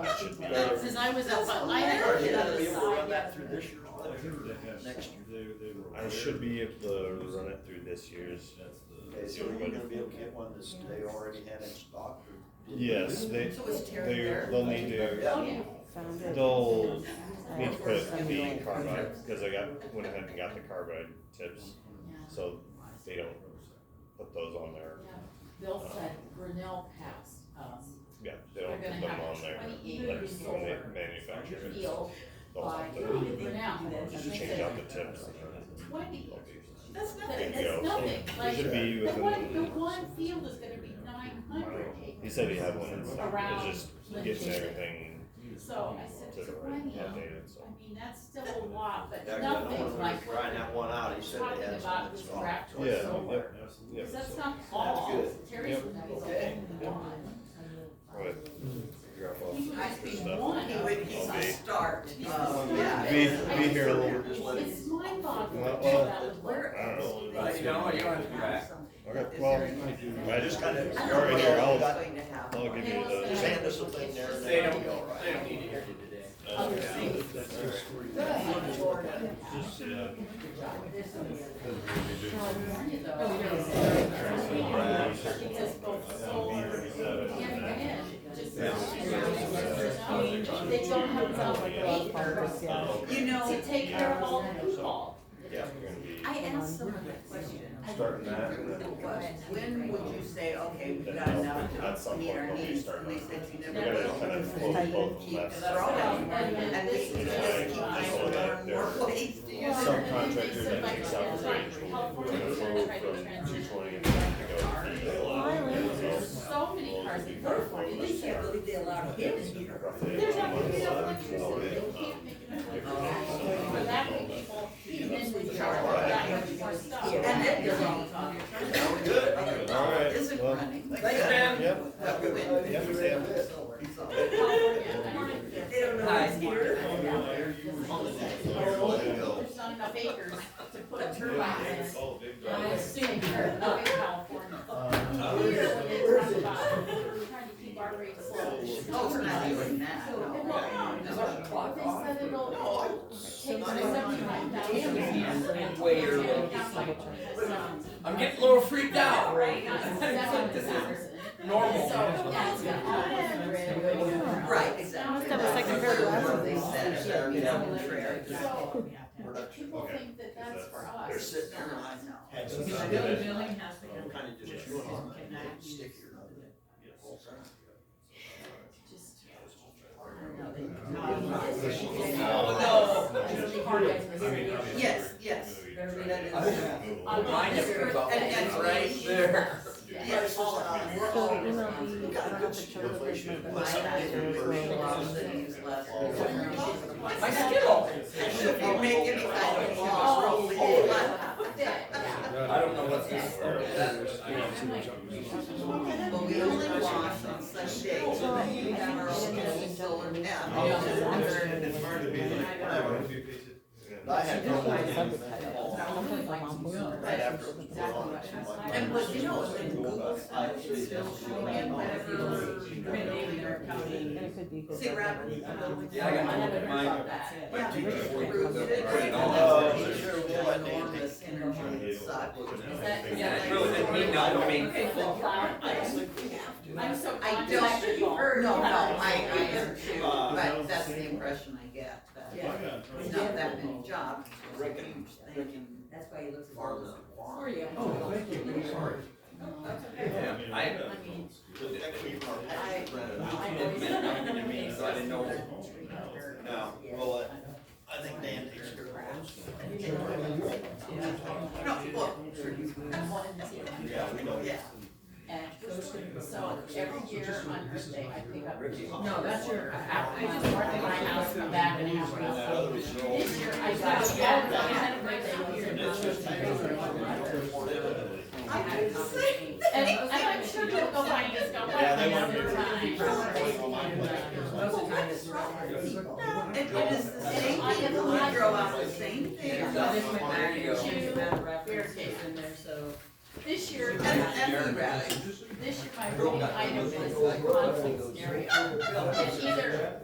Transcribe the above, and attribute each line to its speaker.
Speaker 1: that since I was up, but I had
Speaker 2: Are
Speaker 1: to
Speaker 2: you
Speaker 1: get
Speaker 2: gonna
Speaker 1: out
Speaker 2: be
Speaker 1: of
Speaker 2: able to run
Speaker 1: side.
Speaker 2: that through this year's budget? Next
Speaker 3: year. They, they were.
Speaker 4: I should be able to run it through this year's.
Speaker 3: That's the.
Speaker 2: Okay, so you're gonna be able to get one that's, they already had in stock? or-
Speaker 4: Yes, they,
Speaker 1: So it's tearing
Speaker 4: they,
Speaker 1: there.
Speaker 4: they'll need to,
Speaker 1: Oh,
Speaker 2: Yeah.
Speaker 1: yeah.
Speaker 4: they'll need to put the carbide, cause I got, went ahead and got the carbide tips,
Speaker 1: Yeah.
Speaker 4: so they don't put those on there.
Speaker 1: Yeah. Bill said Grinnell um, passed us.
Speaker 4: Yeah, they
Speaker 1: We're
Speaker 4: don't
Speaker 1: gonna
Speaker 4: put them
Speaker 1: have
Speaker 4: on there,
Speaker 1: twenty-eight
Speaker 4: like when they
Speaker 1: solar
Speaker 4: manufacture it.
Speaker 1: field
Speaker 4: They'll
Speaker 1: by
Speaker 4: have to
Speaker 1: Grinnell.
Speaker 4: just change out the tips.
Speaker 1: Twenty, that's nothing,
Speaker 4: There you
Speaker 1: that's
Speaker 4: go.
Speaker 1: nothing, like,
Speaker 4: Should be
Speaker 1: the one, the
Speaker 4: within-
Speaker 1: one field is gonna be nine hundred
Speaker 4: He
Speaker 1: acres.
Speaker 4: said he had one, in stock.
Speaker 1: Around
Speaker 4: it's just
Speaker 1: Lincoln.
Speaker 4: getting everything
Speaker 1: So I
Speaker 4: to
Speaker 1: said twenty,
Speaker 4: updated, so.
Speaker 1: I mean, that's still a lot,
Speaker 2: Yeah,
Speaker 1: but
Speaker 2: 'cause I know
Speaker 1: nothing
Speaker 2: when we were
Speaker 1: like what
Speaker 2: Trying that one out, he said
Speaker 1: talking
Speaker 2: they had
Speaker 1: about
Speaker 2: some in
Speaker 1: this
Speaker 2: stock.
Speaker 1: rack
Speaker 2: so
Speaker 4: Yeah,
Speaker 2: it's somewhere.
Speaker 4: yep,
Speaker 3: Absolutely.
Speaker 4: yep.
Speaker 1: Because that's not all,
Speaker 2: good.
Speaker 1: Terry's
Speaker 4: Yep.
Speaker 1: one,
Speaker 2: Okay.
Speaker 1: that's one.
Speaker 4: Right. Drop off
Speaker 1: He would
Speaker 4: your
Speaker 1: just be
Speaker 4: stuff.
Speaker 1: one.
Speaker 5: He would, he's a start. Um,
Speaker 1: Oh,
Speaker 2: yeah.
Speaker 4: Be, be here a little,
Speaker 2: Just let
Speaker 1: It's
Speaker 2: him-
Speaker 1: mind boggling
Speaker 4: Well,
Speaker 1: that
Speaker 4: well,
Speaker 1: would work.
Speaker 4: I don't know.
Speaker 5: Right,
Speaker 6: no, you're on
Speaker 4: Okay, well, I just kind of, you're already here, I'll, I'll give you
Speaker 2: Just
Speaker 4: the.
Speaker 2: hand us a thing there and
Speaker 6: They
Speaker 2: that'll
Speaker 6: don't-
Speaker 2: be all right.
Speaker 6: they don't need to hear you today.
Speaker 4: uh,
Speaker 1: Other cities.
Speaker 2: That's your story.
Speaker 1: Good Lord.
Speaker 4: Just, uh,
Speaker 1: California, though,
Speaker 4: Right.
Speaker 1: Because both solar and wind just.
Speaker 2: Yeah.
Speaker 1: I mean, They don't have enough acres
Speaker 5: You know,
Speaker 1: to take care of all the people.
Speaker 4: yeah, we're gonna be
Speaker 5: I asked someone that question. I
Speaker 4: starting that and
Speaker 5: think
Speaker 4: then.
Speaker 5: it was, When would you say, okay, we've got
Speaker 4: At
Speaker 5: enough
Speaker 4: some
Speaker 5: to meet
Speaker 4: point,
Speaker 5: our
Speaker 4: they'll be
Speaker 5: needs?
Speaker 4: starting
Speaker 5: We
Speaker 4: on
Speaker 5: said you
Speaker 4: We
Speaker 5: never
Speaker 4: gotta kind
Speaker 5: will.
Speaker 4: of float both
Speaker 5: Keep
Speaker 4: left.
Speaker 5: throwing,
Speaker 1: And then
Speaker 5: and
Speaker 1: this
Speaker 5: we
Speaker 1: is
Speaker 5: just keep
Speaker 1: just
Speaker 4: like
Speaker 5: finding more and
Speaker 4: they're-
Speaker 5: more ways to use
Speaker 4: Some
Speaker 5: it.
Speaker 4: contractor that takes out the range will turn it forward from two twenty and then to go. to the
Speaker 1: There's
Speaker 4: left.
Speaker 1: so many cars in California,
Speaker 5: We can't believe they allowed him in here.
Speaker 4: Roughly
Speaker 1: There's
Speaker 4: about
Speaker 1: not gonna be
Speaker 4: one
Speaker 1: enough
Speaker 4: month, so
Speaker 1: electricity, they
Speaker 4: it-
Speaker 1: can't make enough electricity for that many people, and then we charge that much more stuff.
Speaker 5: And then you're all
Speaker 2: Sound good.
Speaker 4: All right,
Speaker 5: Isn't
Speaker 4: well,
Speaker 5: running.
Speaker 2: Thanks, man.
Speaker 4: Yep.
Speaker 5: But we went-
Speaker 4: Yep, yep.
Speaker 1: California,
Speaker 5: They don't know who's here.
Speaker 1: There's not enough acres to put a turbine in. I assume you're not in California. Here, when they talk about trying to keep our rates low.
Speaker 5: Oh, we're not doing that.
Speaker 1: Well,
Speaker 5: no.
Speaker 1: no,
Speaker 5: Is our clock
Speaker 1: they
Speaker 5: on?
Speaker 1: said it'll take
Speaker 2: I-
Speaker 1: seventy-five thousand.
Speaker 6: Damn. Way early. I'm getting a little freaked out.
Speaker 1: Right, not
Speaker 6: This is
Speaker 1: $70,000.
Speaker 6: normal.
Speaker 1: So, yeah, it's gonna all be-
Speaker 5: Right, exactly.
Speaker 1: Must have a second pair of
Speaker 5: That's what They
Speaker 2: glasses.
Speaker 5: said,
Speaker 2: Yeah.
Speaker 5: you know, contrary.
Speaker 1: So,
Speaker 2: We're not-
Speaker 1: people
Speaker 4: okay.
Speaker 1: think that that's for
Speaker 2: They're
Speaker 1: us.
Speaker 2: sitting there like. had some- Kind of just chewing on it, and it's stickier.
Speaker 1: Just-
Speaker 5: Oh, Yes, yes.
Speaker 6: Mine is
Speaker 5: And-
Speaker 6: about
Speaker 5: and-
Speaker 6: right there.
Speaker 5: Yes.
Speaker 7: So you know, you don't have to turn the
Speaker 2: Inflation.
Speaker 7: business.
Speaker 5: My doctor was a lot of things less.
Speaker 6: My skittle.
Speaker 5: And she'll be making me kind of walk.
Speaker 6: Oh,
Speaker 1: Yeah.
Speaker 6: I don't know what's this.
Speaker 5: But we only wash um, on Sunday, so that you have our own solar panel.
Speaker 2: I had no
Speaker 7: Yeah.
Speaker 2: idea. Right after. it was gone, it's like-
Speaker 5: And what you know, is when Google search is still showing in whatever.
Speaker 7: And it could be.
Speaker 5: See, Robin, I don't think.
Speaker 6: Yeah, I got
Speaker 1: I haven't
Speaker 6: one.
Speaker 1: heard
Speaker 6: Mine.
Speaker 1: about that.
Speaker 5: Yeah. Enormous energy suck.
Speaker 6: Yeah, it really didn't mean no, I mean.
Speaker 1: Okay, so flower
Speaker 2: I just
Speaker 1: thing.
Speaker 2: think we have to.
Speaker 1: I'm so
Speaker 5: I
Speaker 1: glad that
Speaker 5: don't,
Speaker 1: you heard.
Speaker 5: no, no, I, I am too, but that's the impression I get, that it's not that many jobs, it's just a huge thing.
Speaker 8: That's why he looks.
Speaker 2: Farm is a
Speaker 1: For
Speaker 2: farm.
Speaker 1: you.
Speaker 2: Oh, thank you, sorry.
Speaker 1: That's okay.
Speaker 6: I,
Speaker 1: I mean,
Speaker 2: The next week, our package rented
Speaker 1: I
Speaker 2: out.
Speaker 1: always.
Speaker 6: I mean, so I didn't know.
Speaker 2: No, well, I I think Dan takes care of those.
Speaker 5: No, look,
Speaker 2: Yeah, we know.
Speaker 5: yeah,
Speaker 1: And so every year on Earth Day, I pick up.
Speaker 8: No, that's your-
Speaker 1: I I just walk in my house, come back and have my house. This year I got,
Speaker 2: That's-
Speaker 1: yeah, I had a birthday here.
Speaker 2: It's just- I don't know.
Speaker 5: I do the same thing.
Speaker 1: And and I'm sure they'll go find us, go
Speaker 2: Yeah, they
Speaker 1: find
Speaker 2: want to-
Speaker 1: us.
Speaker 5: Well, what's wrong with people? And it is the same thing, we grow out the same thing.
Speaker 8: Yeah,
Speaker 5: And,
Speaker 8: so this went back and
Speaker 1: Two
Speaker 8: changed that reference that's in there, so.
Speaker 1: This year,
Speaker 5: and erratic.
Speaker 1: this year my reading item was conflict scenario. And either